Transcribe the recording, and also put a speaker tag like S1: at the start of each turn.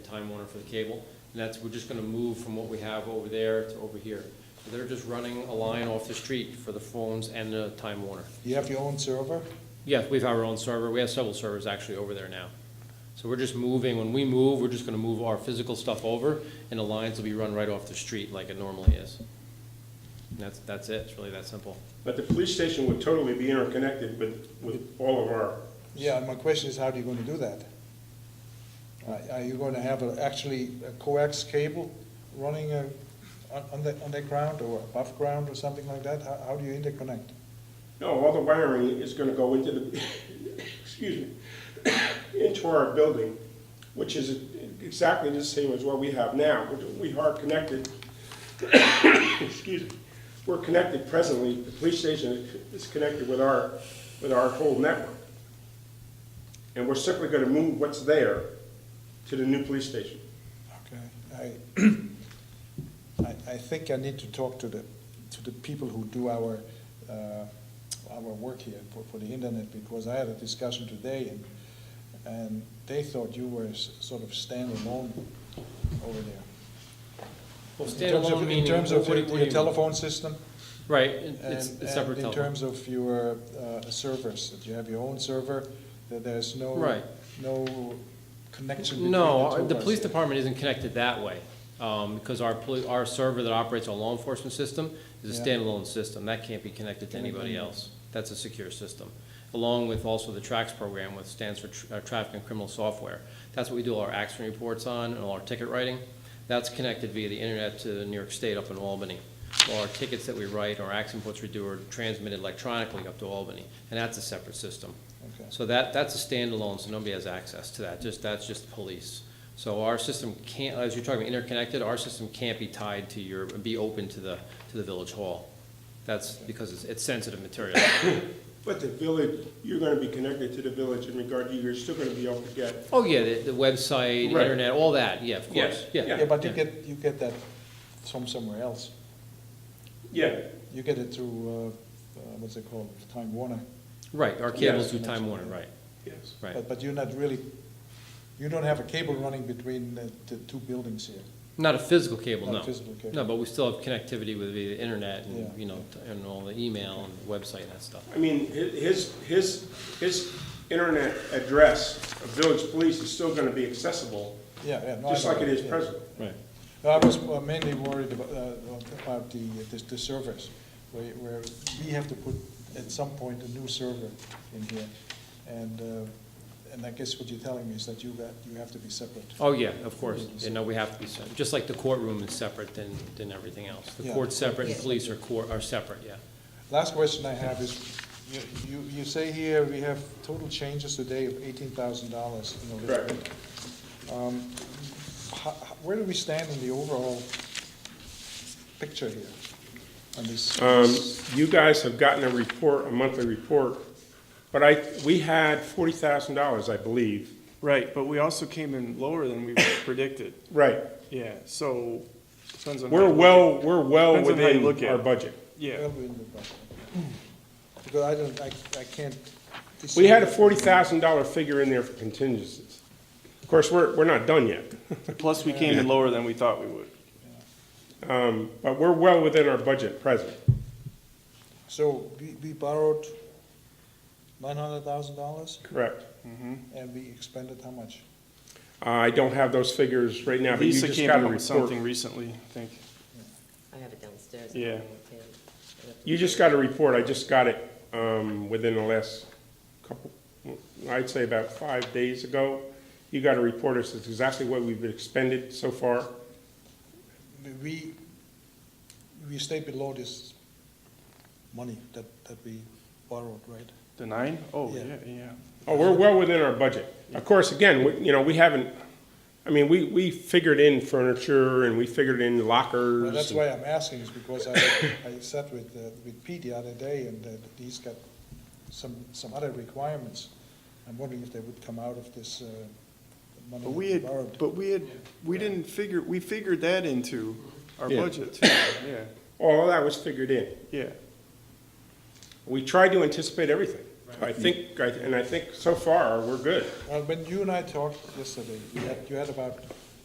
S1: Time Warner for the cable. And that's, we're just gonna move from what we have over there to over here. So they're just running a line off the street for the phones and the Time Warner.
S2: You have your own server?
S1: Yeah, we have our own server, we have several servers actually over there now. So we're just moving, when we move, we're just gonna move our physical stuff over, and the lines will be run right off the street like it normally is. And that's, that's it, it's really that simple.
S3: But the police station would totally be interconnected with, with all of our,
S2: Yeah, and my question is, how are you gonna do that? Are- Are you gonna have a- actually a coax cable running uh, on on the, on the ground or above ground or something like that? How how do you interconnect?
S3: no, all the wiring is gonna go into the, excuse me, into our building, which is exactly the same as what we have now. We are connected, excuse me, we're connected presently, the police station is connected with our, with our whole network. And we're simply gonna move what's there to the new police station.
S2: Okay, I, I, I think I need to talk to the, to the people who do our, uh, our work here for, for the internet, because I had a discussion today, and, and they thought you were s- sort of standalone over there.
S1: Well,
S2: In terms of-
S1: standalone meaning,
S2: In terms of
S1: what do you-
S2: your
S1: what do
S2: your
S1: you-
S2: telephone system?
S1: Right, it- it's
S2: and-
S1: a separate
S2: And in
S1: telephone.
S2: terms of your uh, servers, that you have your own server, that there's no.
S1: Right.
S2: No connection between the two of us.
S1: No, the police department isn't connected that way, um, because our poli, our server that operates our law enforcement system is a
S2: Yeah.
S1: standalone system, that can't be connected to anybody
S2: Mhm.
S1: else. That's a secure system, along with also the TRAX program, which stands for tr- uh, Traffic and Criminal Software. That's what we do all our accident reports on and all our ticket writing. That's connected via the internet to New York State up in Albany. All our tickets that we write, our accident reports we do are transmitted electronically up to Albany, and that's a separate system.
S2: Okay.
S1: So that, that's a standalone, so nobody has access to that, just, that's just police. So our system can't, as you're talking about interconnected, our system can't be tied to your, be open to the, to the village hall. That's because it's, it's sensitive material.
S3: But the village, you're gonna be connected to the village in regard to, you're still gonna be able to get
S1: Oh, yeah, the, the website,
S3: Right.
S1: internet, all that, yeah, of
S3: Yeah,
S1: course, yeah.
S2: Yeah, but you get, you get that from somewhere else.
S3: Yeah,
S2: You get it through, uh, uh, what's it called, Time Warner.
S1: Right, our cables
S3: Yeah.
S1: do Time Warner, right,
S3: yes.
S1: right.
S2: But, but you're not really, you don't have a cable running between the, the two buildings here.
S1: Not a physical cable, no.
S2: Not physical cable.
S1: No, but we still have connectivity with the internet
S2: Yeah.
S1: and, you know, and all the email and website and that stuff.
S3: I mean, hi- his, his, his internet address of village police is still gonna be accessible,
S2: Yeah, yeah. no, I
S3: just
S2: know
S3: like it
S2: that,
S3: is
S2: yeah.
S3: presently.
S1: Right.
S2: No, I was uh, mainly worried about, uh, about the, the the servers, where, where we have to put at some point a new server in here. And, uh, and I guess what you're telling me is that you got, you have to be separate.
S1: Oh, yeah, of course. You know, we have to be, separate. just like the courtroom is separate than, than everything else. The
S2: Yeah.
S1: court's separate and police are court, are separate, yeah.
S2: Last question I have is, you, you, you say here we have total changes today of eighteen thousand dollars in Elizabeth. Um, ho- ho- Where do we stand in the overall picture here on this?
S3: Um, you guys have gotten a report, a monthly report, but I, we had forty thousand dollars, I believe.
S4: Right, but we also came in lower than we predicted,
S3: Right,
S4: yeah, so, depends on. how
S3: we're
S4: you look
S3: well, we're well
S4: Depends on how you
S3: within
S4: look at
S3: our
S4: it.
S3: budget.
S4: at it. Yeah,
S2: Well, we in the budget. Because I don't, I, I can't.
S3: We had a forty thousand dollar figure in there for contingencies. Of course, we're, we're not done yet,
S4: plus we came in lower than we thought we would.
S3: um, but we're well within our budget present.
S2: So we, we borrowed nine hundred thousand dollars
S3: Correct.
S2: and we expended how much?
S3: I don't have those figures right now, but you
S4: Lisa
S3: just
S4: came
S3: got a
S4: in with something
S3: report.
S4: recently, I think.
S5: I have it downstairs.
S4: Yeah.
S3: You just got a report, I just got it, um, within the last couple, I'd say about five days ago. You got a report, it's exactly what we've expended so far.
S2: We, we stayed below this money that, that we borrowed, right?
S4: The nine? Oh,
S2: Yeah.
S4: yeah, yeah.
S3: Oh, we're well within our budget. Of course, again, we- you know, we haven't, I mean, we, we figured in furniture and we figured in lockers.
S2: Well, that's
S3: and-
S2: why I'm asking, is because I, I sat with, uh, with Pete the other day, and uh, he's got some, some other requirements. I'm wondering if they would come out of this uh, money
S4: But
S2: that
S4: we
S2: we
S4: had,
S2: borrowed.
S4: but we had, we didn't figure, we figured that into our
S3: Yeah.
S4: budget, too. yeah,
S3: All of that was figured in.
S4: yeah.
S3: We tried to anticipate everything. I think, I- and I think so far, we're good.
S2: Well, when you and I talked yesterday, you had, you had about